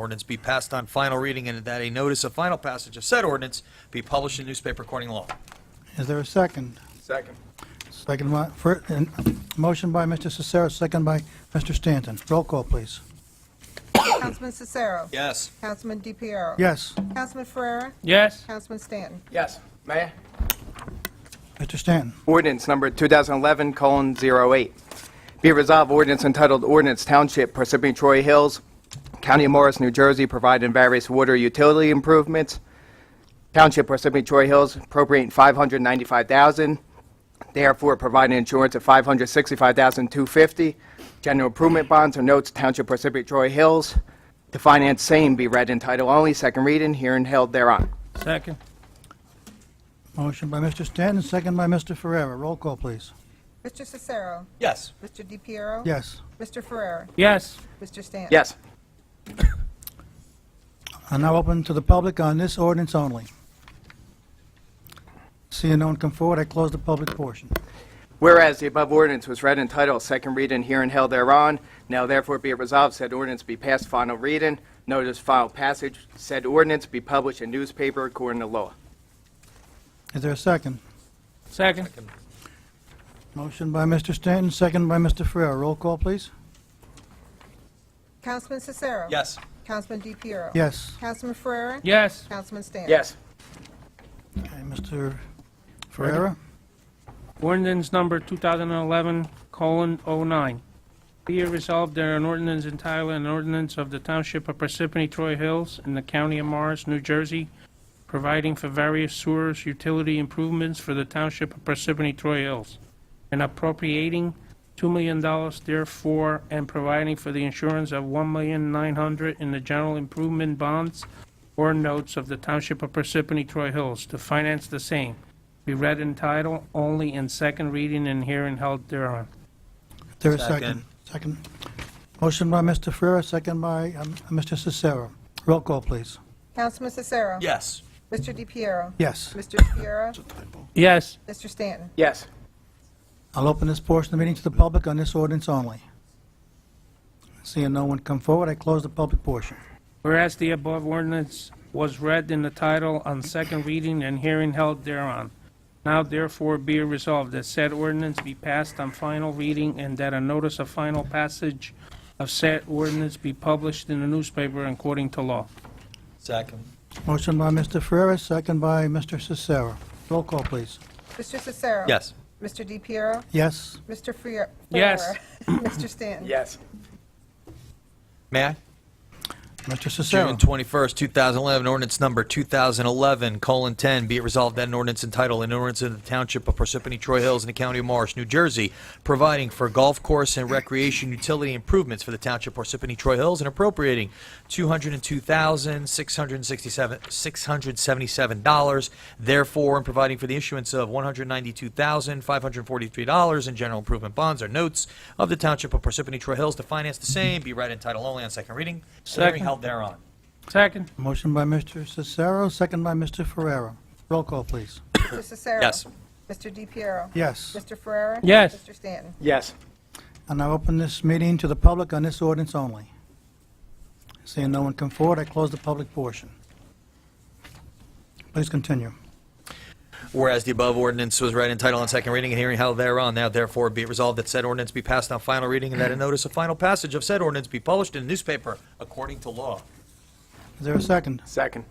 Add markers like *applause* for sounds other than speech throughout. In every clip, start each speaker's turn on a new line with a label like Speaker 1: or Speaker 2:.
Speaker 1: Ordinance be passed on final reading and that a notice of final passage of said ordinance be published in newspaper according to law.
Speaker 2: Is there a second?
Speaker 3: Second.
Speaker 2: Second by, for, and, motion by Mr. Cicero, second by Mr. Stanton. Roll call, please.
Speaker 4: Councilman Cicero.
Speaker 1: Yes.
Speaker 4: Councilman DePiero.
Speaker 2: Yes,
Speaker 4: Councilman Ferrera.
Speaker 5: Yes.
Speaker 4: Councilman Stanton.
Speaker 3: Yes. Mayor?
Speaker 2: Mr. Stanton.
Speaker 3: Ordinance number 2011:08. Be resolved ordinance entitled Ordinance Township Parsippany Troy Hills, County of Morris, New Jersey, providing various water utility improvements. Township Parsippany Troy Hills appropriating 595000 therefore providing insurance of 565250 General improvement bonds or notes Township Parsippany Troy Hills to finance same be read in title only, second reading, hearing held thereon.
Speaker 5: Second.
Speaker 2: Motion by Mr. Stanton, second by Mr. Ferrera. Roll call, please.
Speaker 4: Mr. Cicero.
Speaker 1: Yes.
Speaker 4: Mr. DePiero.
Speaker 2: Yes.
Speaker 4: Mr. Ferrera.
Speaker 5: Yes.
Speaker 4: Mr. Stanton.
Speaker 3: Yes.
Speaker 2: I'm now open to the public on this ordinance only. Seeing no one come forward, I close the public portion.
Speaker 3: Whereas the above ordinance was read in title, second reading, here and held thereon, now therefore be it resolved, said ordinance be passed final reading, notice final passage, said ordinance be published in newspaper according to law.
Speaker 2: Is there a second?
Speaker 5: Second.
Speaker 2: Motion by Mr. Stanton, second by Mr. Ferrera. Roll call, please.
Speaker 4: Councilman Cicero.
Speaker 1: Yes.
Speaker 4: Councilman DePiero.
Speaker 2: Yes.
Speaker 4: Councilman Ferrera.
Speaker 5: Yes.
Speaker 4: Councilman Stanton.
Speaker 3: Yes.
Speaker 2: Okay, Mr. Ferrera?
Speaker 5: Ordinance number 2011 colon 09. Be it resolved that an ordinance entitled an ordinance of the Township of Parsippany Troy Hills in the County of Morris, New Jersey, providing for various sewers utility improvements for the Township of Parsippany Troy Hills, and appropriating $2 million therefore, and providing for the insurance of $1,900,000 in the general improvement bonds or notes of the Township of Parsippany Troy Hills to finance the same, be read in title only in second reading and hearing held thereon.
Speaker 2: Is there a second? Second. Motion by Mr. Ferrera, second by um, Mr. Cicero. Roll call, please.
Speaker 4: Councilman Cicero.
Speaker 1: Yes.
Speaker 4: Mr. DePiero.
Speaker 2: Yes.
Speaker 4: Mr. Ferrera.
Speaker 5: Yes.
Speaker 4: Mr. Stanton.
Speaker 3: Yes.
Speaker 2: I'll open this portion of the meeting to the public on this ordinance only. Seeing no one come forward, I close the public portion.
Speaker 5: Whereas the above ordinance was read in the title on second reading and hearing held thereon, now therefore be it resolved that said ordinance be passed on final reading and that a notice of final passage of said ordinance be published in the newspaper according to law.
Speaker 1: Second.
Speaker 2: Motion by Mr. Ferrera, second by Mr. Cicero. Roll call, please.
Speaker 4: Mr. Cicero.
Speaker 1: Yes.
Speaker 4: Mr. DePiero.
Speaker 2: Yes?
Speaker 4: Mr. Ferrera.
Speaker 5: Yes.
Speaker 1: *clears throat*
Speaker 4: Mr. Stanton.
Speaker 3: Yes.
Speaker 1: May I?
Speaker 2: Mr. Cicero?
Speaker 1: June 21st, 2011, ordinance number 2011:10, be it resolved that an ordinance entitled, an ordinance of the Township of Parsippany Troy Hills in the County of Morris, New Jersey, providing for golf course and recreation utility improvements for the Township of Parsippany Troy Hills and appropriating $202,677, therefore, and providing for the issuance of $192,543 in general improvement bonds or notes of the Township of Parsippany Troy Hills to finance the same, be read in title only on second reading, hearing
Speaker 5: Second.
Speaker 1: held thereon.
Speaker 5: Second.
Speaker 2: Motion by Mr. Cicero, second by Mr. Ferrera. Roll call, please.
Speaker 4: Mr. Cicero.
Speaker 1: Yes.
Speaker 4: Mr. DePiero.
Speaker 2: Yes.
Speaker 4: Mr. Ferrera.
Speaker 5: Yes.
Speaker 4: Mr. Stanton.
Speaker 3: Yes.
Speaker 2: And I open this meeting to the public on this ordinance only. Seeing no one come forward, I close the public portion. Please continue.
Speaker 1: Whereas the above ordinance was read in title on second reading and hearing held thereon, now therefore be it resolved that said ordinance be passed on final reading and that a notice of final passage of said ordinance be published in the newspaper according to law.
Speaker 2: Is there a second?
Speaker 3: Second.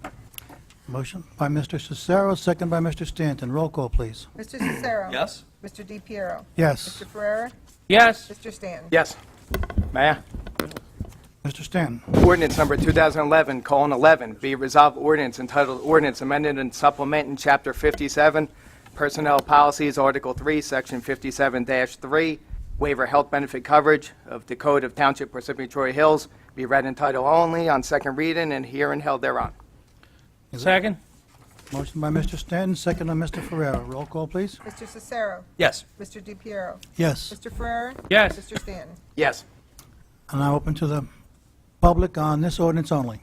Speaker 2: Motion by Mr. Cicero, second by Mr. Stanton. Roll call, please.
Speaker 4: Mr. Cicero.
Speaker 1: Yes?
Speaker 4: Mr. DePiero.
Speaker 2: Yes.
Speaker 4: Mr. Ferrera.
Speaker 5: Yes.
Speaker 4: Mr. Stanton.
Speaker 3: Yes. Mayor?
Speaker 2: Mr. Stanton.
Speaker 3: Ordinance number 2011, colon 11, be resolved ordinance entitled ordinance amended and supplementing chapter 57, personnel policies, article 3, section 57-3, waiver health benefit coverage of the code of township Parsippany Troy Hills, be read in title only on second reading and hearing held thereon.
Speaker 5: Second.
Speaker 2: Motion by Mr. Stanton, second by Mr. Ferrera. Roll call, please.
Speaker 4: Mr. Cicero.
Speaker 1: Yes.
Speaker 4: Mr. DePiero.
Speaker 2: Yes.
Speaker 4: Mr. Ferrera.
Speaker 5: Yes.
Speaker 4: Mr. Stanton.
Speaker 3: Yes.
Speaker 2: And I open to the public on this ordinance only.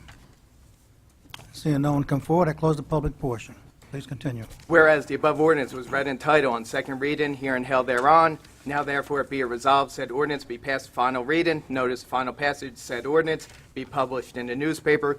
Speaker 2: Seeing no one come forward, I close the public portion. Please Please continue.
Speaker 3: Whereas the above ordinance was read in title on second reading here and held thereon, now therefore be it resolved said ordinance be passed final reading, notice final passage said ordinance be published in the newspaper